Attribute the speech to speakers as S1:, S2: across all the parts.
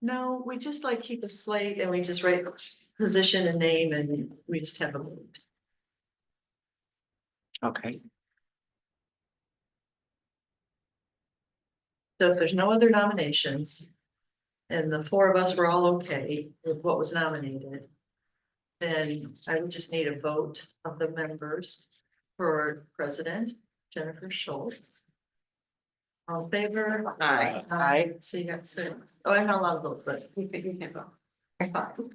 S1: No, we just like keep a slate and we just write position and name and we just have them moved.
S2: Okay,
S1: So if there's no other nominations. And the four of us were all okay with what was nominated. Then I would just need a vote of the members for president Jennifer Schultz. All in favor?
S2: Aye.
S1: Aye. So you got six. Oh, I'm not allowed to vote, but
S3: You can, you can vote.
S1: Fine.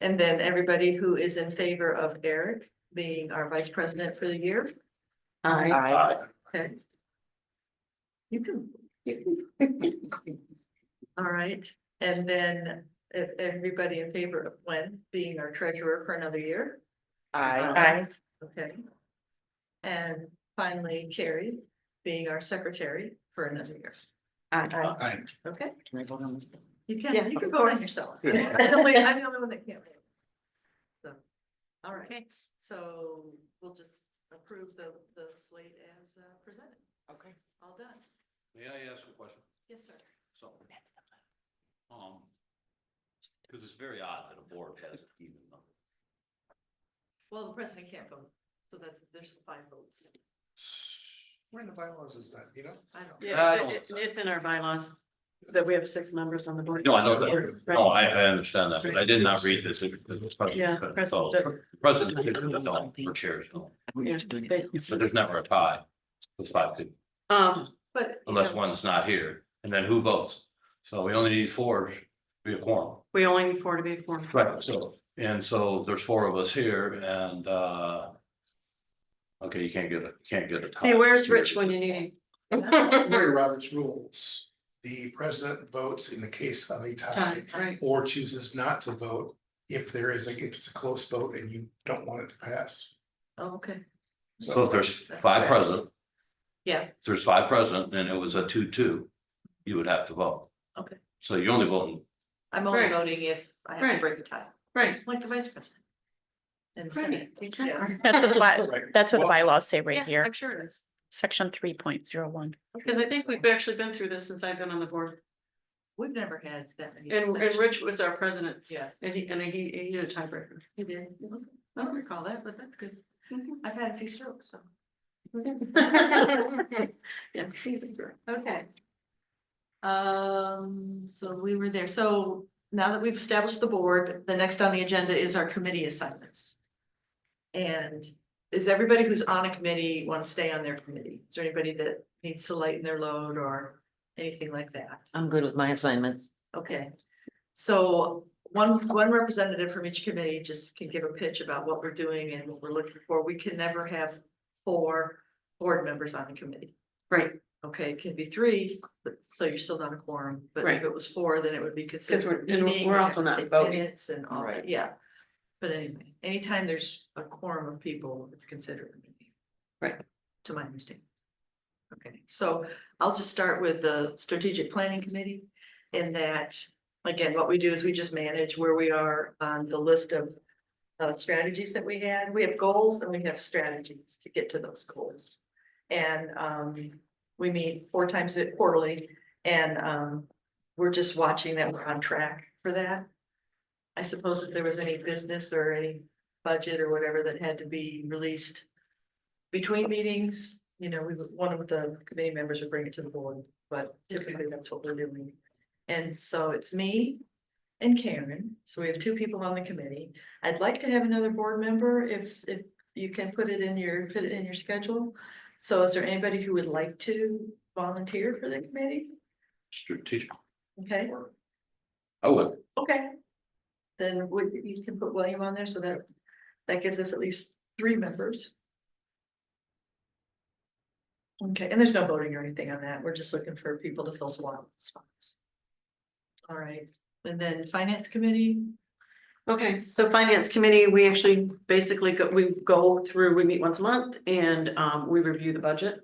S1: And then everybody who is in favor of Eric being our vice president for the year,
S3: Aye.
S2: aye,
S1: okay? You can, all right, and then if everybody in favor of Gwen being our treasurer for another year,
S2: aye,
S3: Aye.
S1: okay? And finally Carrie being our secretary for another year,
S3: Aye.
S4: Aye.
S1: okay?
S2: Can I vote on this?
S1: You can,
S3: Yes.
S1: you can vote on yourself. I'm
S4: Yeah.
S1: the only I'm the only one that can't. vote. So, all right, so we'll just approve the, the slate as uh, presented,
S2: Okay.
S1: all done.
S4: May I ask a question?
S1: Yes, sir.
S4: So. Um. Because it's very odd that a board has an even number.
S1: Well, the president can't vote, so that's, there's five votes.
S4: Where in the bylaws is that, you know?
S1: I don't.
S4: I
S3: Yeah,
S4: don't-
S3: it- It's in our bylaws that we have six members on the board.
S4: No, I know that.
S3: Right.
S4: No, Oh, I, I understand that, but I did not read this. it- it was
S3: Yeah,
S4: president, but- so,
S3: president.
S4: President, is no, for chairs, no,
S2: We
S3: Yeah,
S2: used to do
S3: they-
S2: that.
S4: but there's never a tie. It's five, people,
S3: Um,
S1: But. you
S4: unless
S1: know,
S4: one's not here, and then who votes? So we only need four to be a quorum.
S3: we only need four to be four.
S4: Right, so, and so there's four of us here and, uh. Okay, you can't get a, can't get a. tie.
S3: See, where's Rich when you need him?
S5: Mary Roberts rules, the president votes in the case of a tie.
S3: Time, right,
S5: Or chooses not to vote if there is, a if it's a close vote and you don't want it to pass.
S1: oh, Okay,
S4: So if there's five present,
S1: yeah,
S4: if there's five present and it was a two-two, you would have to vote.
S1: Okay.
S4: So you only vote,
S1: I'm only
S3: Right.
S1: voting if I have to
S3: Right.
S1: break the tie,
S3: right.
S1: like the vice president. And the
S3: Right.
S1: senate, yeah,
S6: That's what the by,
S5: Right.
S6: that's what the
S5: Well,
S6: bylaws say right
S3: Yeah,
S6: here,
S3: I'm sure it is,
S6: section three point zero one.
S3: because I think we've actually been through this since I've been on the board.
S1: we've never had that many.
S3: And, and Rich
S1: abstentions.
S3: was our president
S1: Yeah,
S3: and he, and he, he did a tiebreaker.
S1: he did, Okay. I don't recall that, but that's good, I've had a few strokes, so.
S3: Yeah.
S1: Okay. Um, so we were there. So now that we've established the board, the next on the agenda is our committee assignments. And is everybody who's on a committee want to stay on their committee? Is there anybody that needs to lighten their load or anything like that?
S2: I'm good with my assignments.
S1: Okay. So one, one representative from each committee just can give a pitch about what we're doing and what we're looking for. We can never have four board members on the committee.
S3: Right,
S1: Okay, it can be three, but so you're still not a quorum, but if
S3: Right.
S1: it was four, then it would be considered.
S3: we're-
S1: a
S3: and
S1: meeting,
S3: we're
S1: we
S3: also
S1: have to
S3: not
S1: take
S3: voting.
S1: Minutes and all that, yeah. But anyway, anytime there's a quorum of people, it's considered a meeting.
S3: Right.
S1: To my understanding. Okay, so I'll just start with the strategic planning committee. In that, again, what we do is we just manage where we are on the list of. Uh, strategies that we had, we have goals and we have strategies to get to those goals. And um, we meet four times a- quarterly and um, we're just watching that we're on track for that. I suppose if there was any business or any budget or whatever that had to be released between meetings, you know, we would, one of the committee members would bring it to the board, but typically that's what we're doing. And so it's me and Karen, so we have two people on the committee. I'd like to have another board member if, if you can put it in your, fit it in your schedule. So is there anybody who would like to volunteer for the committee?
S4: strategic,
S1: Okay,
S4: I would,
S1: okay. Then would, you can put William on there so that, that gives us at least three members. Okay, and there's no voting or anything on that. We're just looking for people to fill some wild spots. All right, and then finance committee,
S3: okay, so finance committee, we actually basically go, we go through, we meet once a month and, um, we review the budget.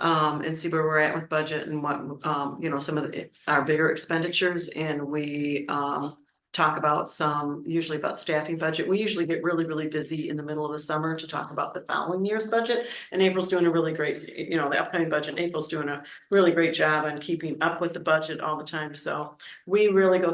S3: Um, and see where we're at with budget and what, um, you know, some of the, our bigger expenditures and we, um. Talk about some, usually about staffing budget, we usually get really, really busy in the middle of the summer to talk about the following year's budget. And April's doing a really great, you know, the upcoming budget, April's doing a really great job on keeping up with the budget all the time, so. We really go